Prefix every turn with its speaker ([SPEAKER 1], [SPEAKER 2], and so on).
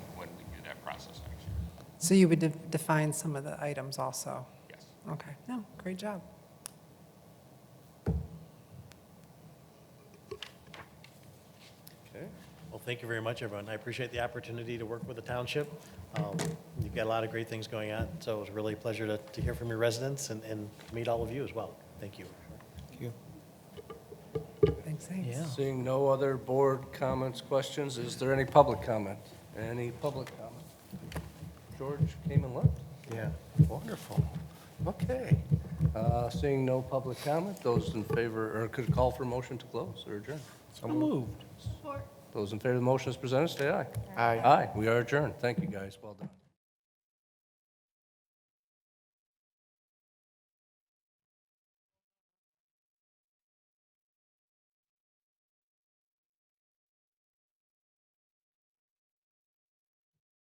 [SPEAKER 1] process next year,
[SPEAKER 2] So you would de- define some of the items also?
[SPEAKER 1] yes.
[SPEAKER 2] Okay, no, great job.
[SPEAKER 3] Okay. Well, thank you very much, everyone. I appreciate the opportunity to work with the township. Um, You've got a lot of great things going on, so it was really a pleasure to, to hear from your residents and, and meet all of you as well. Thank you.
[SPEAKER 2] Thanks, thanks.
[SPEAKER 4] Yeah. Seeing no other board comments, questions, is there any public comment? Any public comment? George came and left? Yeah, wonderful. Okay. Uh, Seeing no public comment, those in favor, or could call for motion to close or adjourn? So moved. Those in favor of the motion as presented, say aye. Aye. Aye, we are adjourned. Thank you, guys. Well done.